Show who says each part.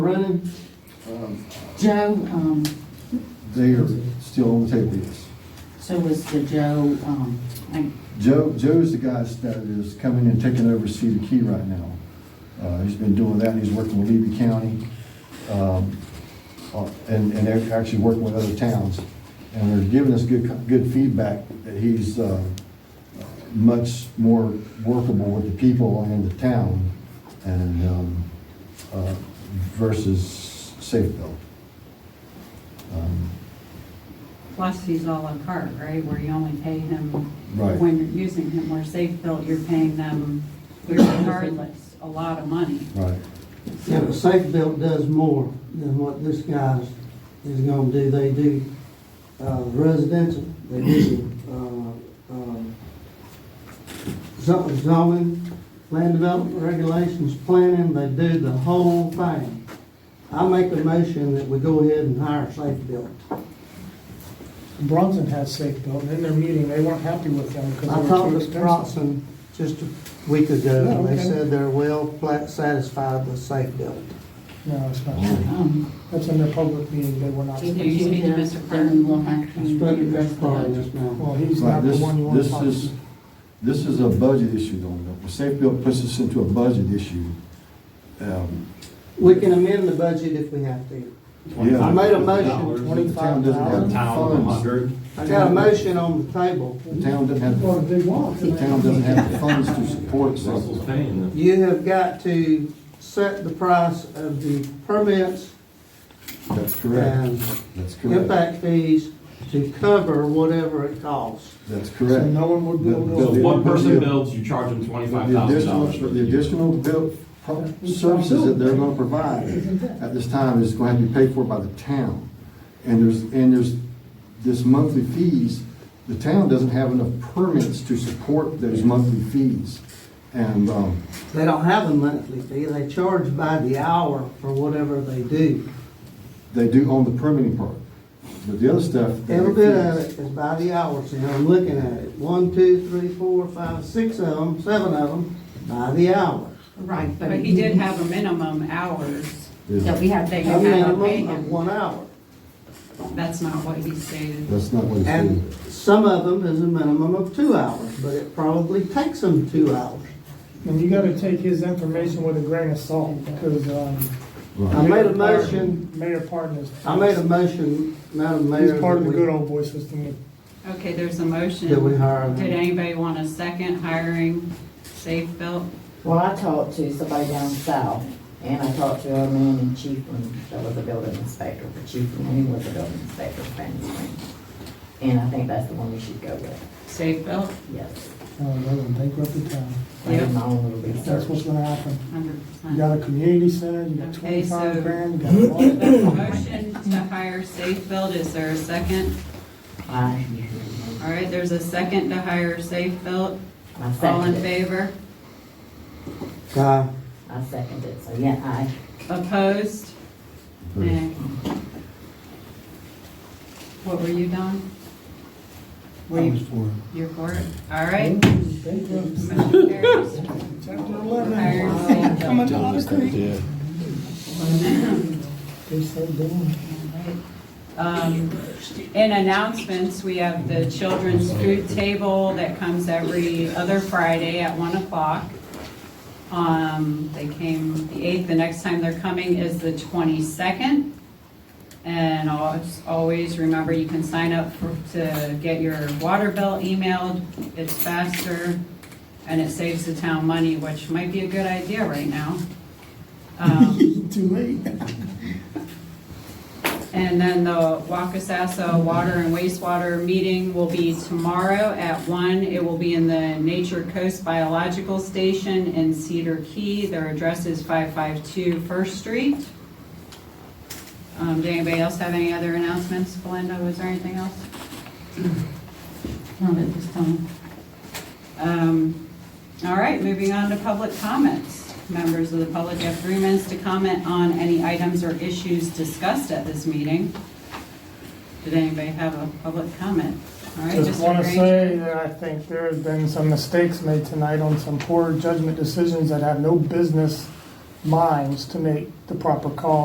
Speaker 1: Running, Joe, um,
Speaker 2: They are still on the table, yes.
Speaker 1: so was the Joe, um, I-
Speaker 2: Joe, Joe's the guy that is coming and taking over Cedar Key right now. Uh, he's been doing that, and he's working with Levy County, um, uh, and, and they're actually working with other towns. And they're giving us good, good feedback that he's, uh, much more workable with the people and the town and, um, uh, versus Safeville. Um,
Speaker 3: Plus, he's all on cart, right, where you only pay him
Speaker 2: Right.
Speaker 3: when you're using him, where safe built, you're paying them regardless, a lot of money.
Speaker 2: Right,
Speaker 4: Yeah, but Safe Belt does more than what this guy's is gonna do. They do, uh, residential, they do, uh, um, zo- zoning, land development regulations, planning, they do the whole thing. I make a motion that we go ahead and hire Safe Belt.
Speaker 5: Bronson has safe built, and in their meeting, they weren't happy with them because
Speaker 4: I
Speaker 5: they were
Speaker 4: talked
Speaker 5: too
Speaker 4: to
Speaker 5: expensive.
Speaker 4: Bronson just a week ago, and they
Speaker 5: Yeah, okay.
Speaker 4: said they're well pla- satisfied with Safe Belt.
Speaker 5: No, it's not true.
Speaker 1: um,
Speaker 5: That's in their public meeting, they were not.
Speaker 3: Do
Speaker 1: if
Speaker 3: you
Speaker 1: you
Speaker 3: speak to
Speaker 1: did,
Speaker 3: Mr.
Speaker 1: then we'll have
Speaker 4: I spoke to
Speaker 1: to address
Speaker 4: Mr. Carter
Speaker 1: that.
Speaker 4: just now.
Speaker 5: Well, he's
Speaker 2: Right,
Speaker 5: not the
Speaker 2: this,
Speaker 5: one you want to
Speaker 2: this
Speaker 5: talk
Speaker 2: is,
Speaker 5: to.
Speaker 2: this is a budget issue though. Safe Built puts us into a budget issue. Um,
Speaker 4: We can amend the budget if we have to.
Speaker 2: yeah.
Speaker 4: I made a motion.
Speaker 2: The town doesn't have the
Speaker 6: Town
Speaker 2: funds.
Speaker 6: hundred.
Speaker 4: I got a motion on the table.
Speaker 2: The town doesn't have,
Speaker 5: Well,
Speaker 2: the
Speaker 5: they want. to-
Speaker 2: town doesn't have the funds to support Safe
Speaker 6: Russell's
Speaker 2: Built.
Speaker 6: paying them.
Speaker 4: You have got to set the price of the permits
Speaker 2: That's correct.
Speaker 4: and
Speaker 2: That's correct.
Speaker 4: impact fees to cover whatever it costs.
Speaker 2: That's
Speaker 5: So
Speaker 2: correct.
Speaker 5: no one would
Speaker 2: The-
Speaker 5: build
Speaker 2: the-
Speaker 6: So
Speaker 5: those.
Speaker 6: if one person
Speaker 2: The-
Speaker 6: builds, you charge them
Speaker 2: The
Speaker 6: twenty-five
Speaker 2: the
Speaker 6: thousand
Speaker 2: additional,
Speaker 6: dollars.
Speaker 2: the additional built pro- services that they're gonna provide at this time is gonna have to be paid for by the town. And there's, and there's this monthly fees, the town doesn't have enough permits to support those monthly fees. And, um,
Speaker 4: They don't have a monthly fee, they charge by the hour for whatever they do.
Speaker 2: they do own the permitting part, but the other stuff. they
Speaker 4: Every bit
Speaker 2: refuse.
Speaker 4: of it is by the hour, see, I'm looking at it. One, two, three, four, five, six of them, seven of them, by the hour.
Speaker 3: Right, but he did have a minimum hours
Speaker 2: Yeah.
Speaker 3: that we had, that
Speaker 4: A
Speaker 3: you had to pay
Speaker 4: minimum of
Speaker 3: him.
Speaker 4: one hour.
Speaker 3: That's not what he stated.
Speaker 2: That's not what it's.
Speaker 4: And some of them is a minimum of two hours, but it probably takes them two hours.
Speaker 5: And you gotta take his information with a grain of salt, because, um.
Speaker 4: I made a
Speaker 5: Mayor Parton-
Speaker 4: motion.
Speaker 5: Mayor Parton is.
Speaker 4: I made a motion, Madam Mayor.
Speaker 5: He's part of
Speaker 4: that
Speaker 5: the
Speaker 4: we-
Speaker 5: good old boy system.
Speaker 3: Okay, there's a motion.
Speaker 4: That we hire him.
Speaker 3: Did anybody want a second hiring safe built?
Speaker 7: Well, I talked to somebody down south, and I talked to a man in Chiefland that was a building inspector for Chiefland, and he was a building inspector for Fanning Springs. And I think that's the one we should go with,
Speaker 3: Safe built,
Speaker 7: yes.
Speaker 5: Oh, they're gonna bankrupt the town.
Speaker 7: I did my own little
Speaker 5: That's what's
Speaker 7: research.
Speaker 5: gonna happen.
Speaker 3: hundred
Speaker 5: You
Speaker 3: percent.
Speaker 5: got a community center, you got
Speaker 3: Okay, so-
Speaker 5: twenty-five grand, you got a lot.
Speaker 3: Motion to hire safe built, is there a second?
Speaker 7: I,
Speaker 3: All right, there's a second to hire safe built.
Speaker 7: I
Speaker 3: All in
Speaker 7: seconded it.
Speaker 3: favor?
Speaker 4: Uh,
Speaker 7: I seconded it, so yeah, I,
Speaker 3: Opposed? Nay. What were you, Don? Were you, you're for it? All right.
Speaker 5: Bankrupt.
Speaker 3: Motion carries.
Speaker 5: Chapter eleven.
Speaker 3: Hire safe built.
Speaker 5: Coming to Otter Creek. They so dumb.
Speaker 3: Um, In announcements, we have the children's food table that comes every other Friday at 1 o'clock. Um, They came the 8th, the next time they're coming is the 22nd. And always, always remember, you can sign up for- to get your water bill emailed. It's faster and it saves the town money, which might be a good idea right now. Um,
Speaker 5: Too late.
Speaker 3: And then the Wakasasa Water and Wastewater Meeting will be tomorrow at one. It will be in the Nature Coast Biological Station in Cedar Key. Their address is 552 First Street. Um, Did anybody else have any other announcements? Belinda, was there anything else?
Speaker 1: not at this time.
Speaker 3: Um, All right, moving on to public comments. Members of the public have three minutes to comment on any items or issues discussed at this meeting. Did anybody have a public comment? All right,
Speaker 5: Just
Speaker 3: Mr.
Speaker 5: want to
Speaker 3: Granger.
Speaker 5: say that I think there has been some mistakes made tonight on some poor judgment decisions that have no business minds to make the proper call.